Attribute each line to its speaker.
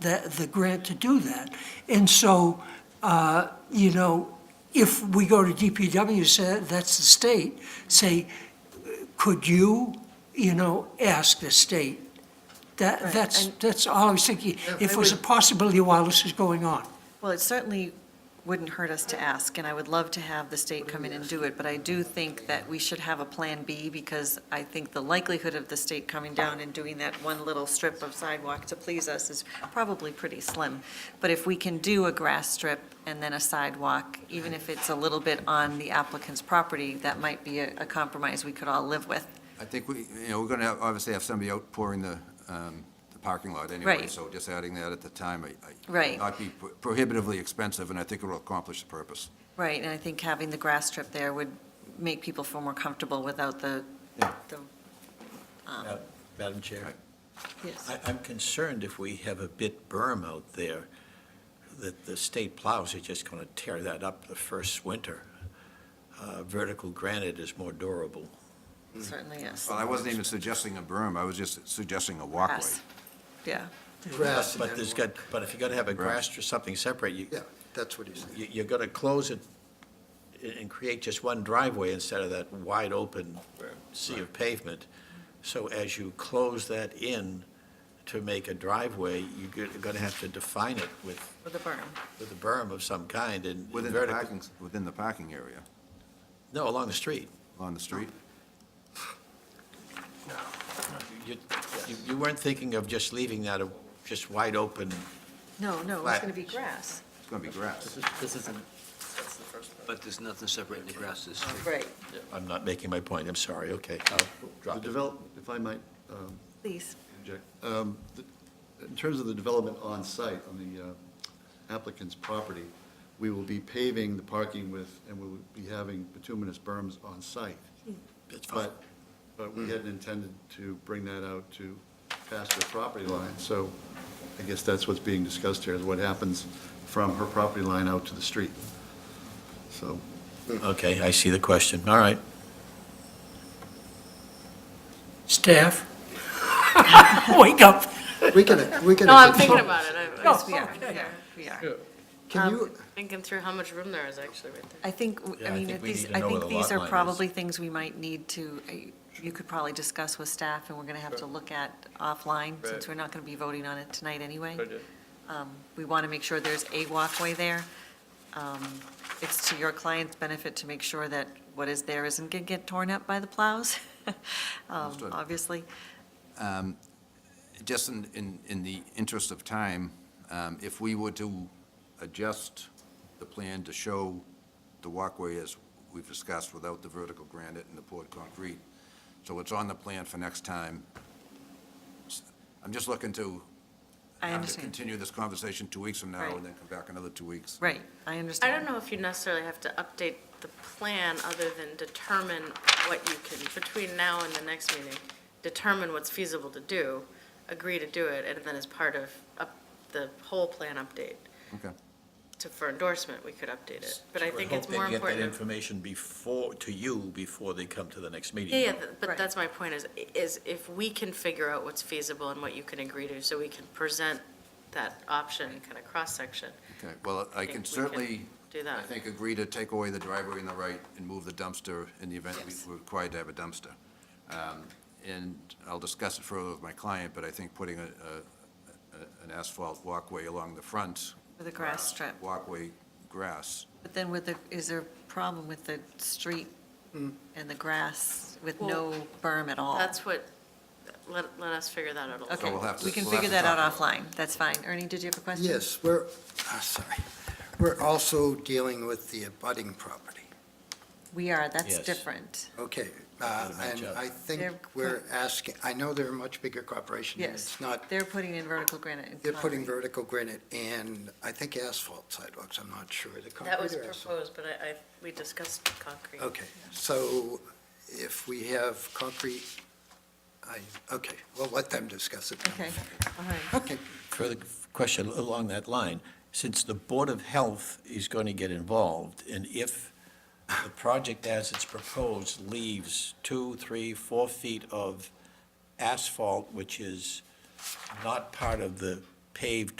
Speaker 1: that, the grant to do that. And so, uh, you know, if we go to DPW, say, that's the state, say, could you, you know, ask the state? That,
Speaker 2: Right,
Speaker 1: that's,
Speaker 2: and-
Speaker 1: that's all I was thinking,
Speaker 2: Yeah,
Speaker 1: if
Speaker 2: I
Speaker 1: it was a
Speaker 2: would-
Speaker 1: possibility while this is going on.
Speaker 2: Well, it certainly wouldn't hurt us to ask, and I would love to have the state come in and do it, but I do think that we should have a Plan B, because I think the likelihood of the state coming down and doing that one little strip of sidewalk to please us is probably pretty slim. But if we can do a grass strip and then a sidewalk, even if it's a little bit on the applicant's property, that might be a a compromise we could all live with.
Speaker 3: I think we, you know, we're going to obviously have somebody out pouring the, um, the parking lot anyway,
Speaker 2: Right.
Speaker 3: so just adding that at the time, I, I.
Speaker 2: Right.
Speaker 3: Not be pro- prohibitively expensive, and I think it will accomplish the purpose.
Speaker 2: Right, and I think having the grass strip there would make people feel more comfortable without the,
Speaker 3: Yeah.
Speaker 2: the,
Speaker 4: Madam Chair,
Speaker 2: yes.
Speaker 4: I, I'm concerned if we have a bit berm out there, that the state plows are just going to tear that up the first winter. Uh, Vertical granite is more durable.
Speaker 2: Certainly, yes.
Speaker 3: Well, I wasn't even suggesting a berm, I was just suggesting a walkway.
Speaker 2: Grass. Yeah,
Speaker 5: Grass and
Speaker 4: But there's
Speaker 5: then-
Speaker 4: got, but if you're going to have a
Speaker 3: Right.
Speaker 4: grass or something separate, you,
Speaker 5: Yeah, that's what he's saying.
Speaker 4: you- you're going to close it a- and create just one driveway instead of that wide open sea of pavement. So as you close that in to make a driveway, you're going to have to define it with
Speaker 2: with a berm.
Speaker 4: with a berm of some kind and
Speaker 3: Within the
Speaker 4: vertical.
Speaker 3: parking, within the parking area,
Speaker 4: No, along the street.
Speaker 3: on the street.
Speaker 4: You, you- you weren't thinking of just leaving that a- just wide open.
Speaker 2: No, no, it's
Speaker 4: Flat.
Speaker 2: going to be grass.
Speaker 3: It's going to be grass.
Speaker 6: This isn't. But there's nothing separating the grass this street.
Speaker 2: Right.
Speaker 4: I'm not making my point, I'm sorry, okay. I'll
Speaker 7: The
Speaker 4: Oh, drop it.
Speaker 7: develop, if I might um,
Speaker 2: Please.
Speaker 7: interject, um, the- in terms of the development on-site on the uh, applicant's property, we will be paving the parking with, and we'll be having bituminous berms on-site.
Speaker 4: That's fine.
Speaker 7: But, but we hadn't intended to bring that out to past her property line, so I guess that's what's being discussed here, is what happens from her property line out to the street. So,
Speaker 4: Okay, I see the question, all right.
Speaker 1: Staff? Wake up.
Speaker 5: We can, we can.
Speaker 8: No, I'm thinking about it. I- I was
Speaker 2: Yes, we are, we are, we are.
Speaker 5: Can
Speaker 8: um,
Speaker 5: you,
Speaker 8: thinking through how much room there is actually right there.
Speaker 2: I think, w-
Speaker 4: Yeah,
Speaker 2: I
Speaker 4: I
Speaker 2: mean,
Speaker 4: think
Speaker 2: if
Speaker 4: we need
Speaker 2: these,
Speaker 4: to
Speaker 2: I
Speaker 4: know where
Speaker 2: think
Speaker 4: the
Speaker 2: these
Speaker 4: lot
Speaker 2: are
Speaker 4: line is.
Speaker 2: probably things we might need to, I- you could probably discuss with staff, and we're going to have to look at offline, since we're not going to be voting on it tonight anyway. Um, We want to make sure there's a walkway there. Um, It's to your client's benefit to make sure that what is there isn't going to get torn up by the plows, um,
Speaker 3: Understood.
Speaker 2: obviously.
Speaker 3: Um, Just in, in, in the interest of time, um, if we were to adjust the plan to show the walkway as we've discussed without the vertical granite and the poured concrete, so it's on the plan for next time. S- I'm just looking to.
Speaker 2: I
Speaker 3: have to
Speaker 2: understand.
Speaker 3: Continue this conversation two weeks from now
Speaker 2: Right.
Speaker 3: and then come back another two weeks.
Speaker 2: Right, I
Speaker 8: I
Speaker 2: understand.
Speaker 8: don't know if you necessarily have to update the plan other than determine what you can, between now and the next meeting, determine what's feasible to do, agree to do it, and then as part of up- the whole plan update
Speaker 3: Okay.
Speaker 8: to, for endorsement, we could update it. But I
Speaker 4: would
Speaker 8: think
Speaker 4: hope
Speaker 8: it's
Speaker 4: they
Speaker 8: more
Speaker 4: Get that
Speaker 8: important.
Speaker 4: information before, to you, before they come to the next meeting.
Speaker 8: Yeah, yeah, th-
Speaker 2: Right.
Speaker 8: but that's my point is, is if we can figure out what's feasible and what you can agree to, so we can present that option, kind of cross-section,
Speaker 3: Okay, well, I
Speaker 8: think
Speaker 3: can
Speaker 8: we can
Speaker 3: certainly,
Speaker 8: do
Speaker 3: I
Speaker 8: that.
Speaker 3: think, agree to take away the driveway in the right and move the dumpster in the event we-
Speaker 8: Yes.
Speaker 3: we're required to have a dumpster. Um, And I'll discuss it further with my client, but I think putting a, a- a- an asphalt walkway along the front. uh,
Speaker 2: With a grass strip.
Speaker 3: Walkway, grass.
Speaker 2: But then with the, is there a problem with the street
Speaker 3: Mm.
Speaker 2: and the grass with no berm at all?
Speaker 8: That's what, let, let us figure that out a little.
Speaker 2: Okay,
Speaker 3: we'll have to-
Speaker 2: we can
Speaker 3: we'll have
Speaker 2: figure
Speaker 3: to
Speaker 2: that out
Speaker 3: talk
Speaker 2: offline, that's fine. Ernie, did you have a question?
Speaker 5: yes, we're, ah, sorry. We're also dealing with the abutting property.
Speaker 2: We are, that's
Speaker 4: Yes.
Speaker 2: different.
Speaker 5: Okay, uh,
Speaker 4: Gotta match
Speaker 5: and
Speaker 4: up.
Speaker 5: I think
Speaker 2: They're-
Speaker 5: we're asking, I know they're a much bigger corporation. and
Speaker 2: Yes.
Speaker 5: It's not,
Speaker 2: They're putting in vertical granite and
Speaker 5: they're putting
Speaker 2: concrete.
Speaker 5: vertical granite and I think asphalt sidewalks, I'm not sure. Is it
Speaker 8: That was
Speaker 5: concrete or asphalt?
Speaker 8: proposed, but I, I, we discussed concrete.
Speaker 5: Okay, so if we have concrete, I, okay, we'll let them discuss it.
Speaker 2: Okay, all right.
Speaker 5: Okay,
Speaker 4: Further question along that line, since the Board of Health is going to get involved, and if the project as it's proposed leaves two, three, four feet of asphalt, which is not part of the paved